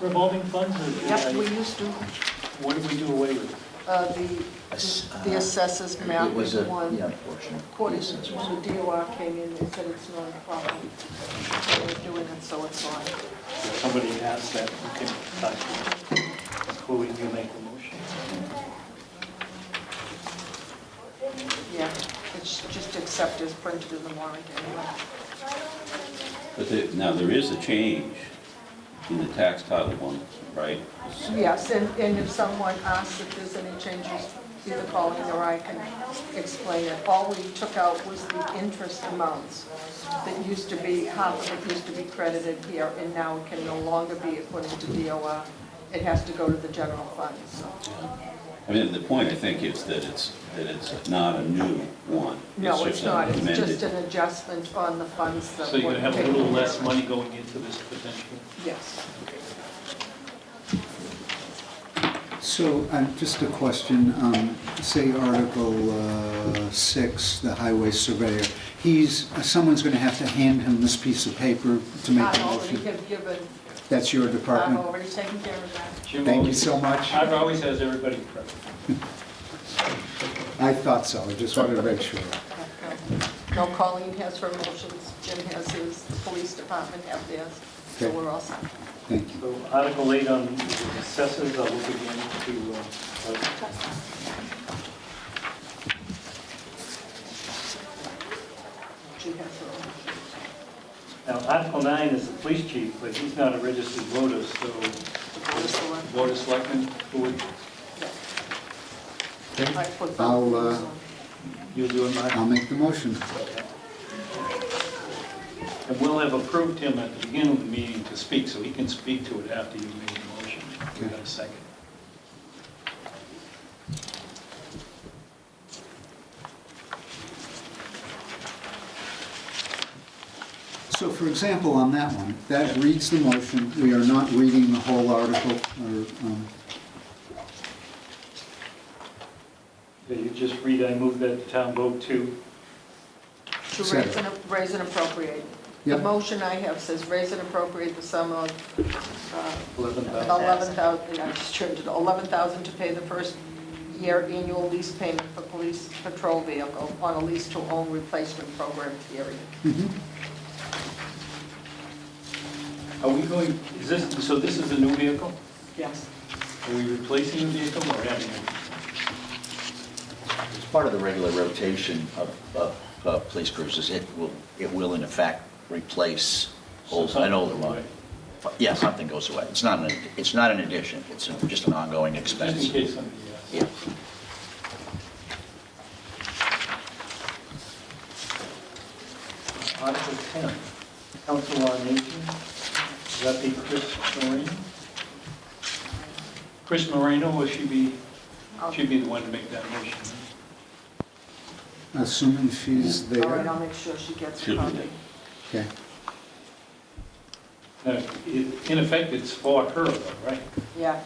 revolving funds, or? Yep, we used to, What did we do away with? uh, the, Ass- the uh, assessors map It is was a, one. yeah, portion. According to when the DOR came in, they said it's not a problem. They were doing it, so it's fine. Somebody asked that, okay, fine. Who would you make the motion? Yeah, it's just accepted as printed in the warrant anyway. But the- now, there is a change in the tax title one, right? Yes, and, and if someone asks if there's any changes, either call me or I can explain it. All we took out was the interest amounts that used to be, half of it used to be credited here, and now it can no longer be according to DOR. It has to go to the general fund, so. I mean, the point, I think, is that it's, that it's not a new one. No, it's just an not, it's amended- just an adjustment on the funds that So you're were gonna have a taken. little less money going into this potentially? Yes. So, um, just a question, um, say Article uh, 6, the highway surveyor, he's, uh, someone's going to have to hand him this piece of paper to make the I've already motion. have given, That's your I've department. already taken care of that. Jim Thank you always- so much. I've always has everybody present. I thought so, I just wanted to make sure. No, Colleen has her motions, Jim has his, the police department have theirs, so Okay. we're all set. Thank you. So Article 8 on the assessors, I'll look again to, uh, uh, She has her own. now, Article 9 is the police chief, but he's not a registered voter, so Board of Select- Board of Selectmen, who would, yeah. I put both I'll, uh, things on. you do it, Mark? I'll make the motion. And we'll have approved him at the beginning of the meeting to speak, so he can speak to it after you made the motion. We got a second. So for example, on that one, that reads the motion, we are not reading the whole article, or, um, Yeah, You just read, I move that the town vote to, To Second. raise and, raise and appropriate. The Yep. motion I have says raise and appropriate the sum of uh, 11,000. 11,000, I just turned it, 11,000 to pay the first year annual lease payment for police patrol vehicle on a lease-to-own replacement program period. mm-hmm, Are we going, is this, so this is a new vehicle? Yes. Are we replacing the vehicle or adding it? It's part of the regular rotation of, of, uh police cruisers. It will, it will in effect replace old, an older one. Yeah, something goes away. It's not, an it's not an addition, it's just an ongoing Just expense. in case somebody asks. Yeah. Article 10, Council on Aging, is that be Chris Moreno? Chris Moreno, will she be, she'd be the one to make that motion? assuming she's All right, I'll there. make sure she gets a Should be copy. there. Okay. Now, it- In effect, it's for her, though, right? Yeah,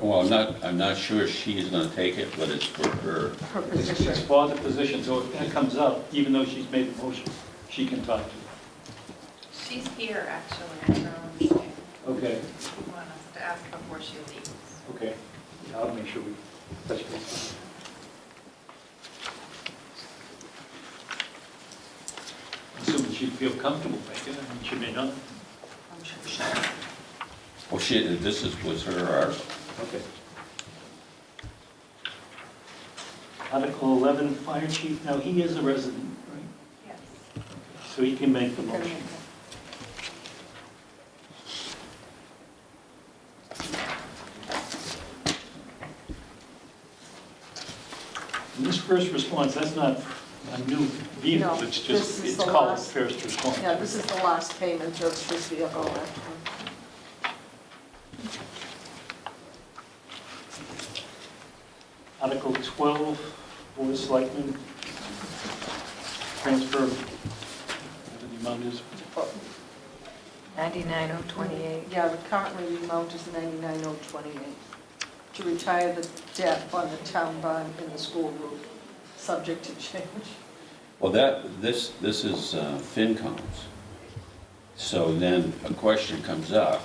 Well, I'm not, I'm not sure she's going to take it, but it's for her. her It's position. it's for the position, so if that comes up, even though she's made the motion, she can talk to She's here, actually, um, if you you. Okay, want us to ask before she leaves. okay. Yeah, I'll make sure we touch base. Assuming she'd feel comfortable making it, I mean, she may not. I'm sure she- Well, she, this is, was her uh, article. Okay. Article 11, Fire Chief, now he is a resident, right? Yes. So he can make the Can motion. make And This first response, that's not a new vehicle, No, it's this just, is it's the called last- first response. Yeah, this is the last payment of this vehicle, actually. Article 12, Board of Selectmen, transfer, whatever the amount is, 99028. Yeah, the currently the amount is 99028 to retire the debt on the town bond in the school roof, subject to change. Well, that, this, this is uh, FinCom's. So then a question comes up,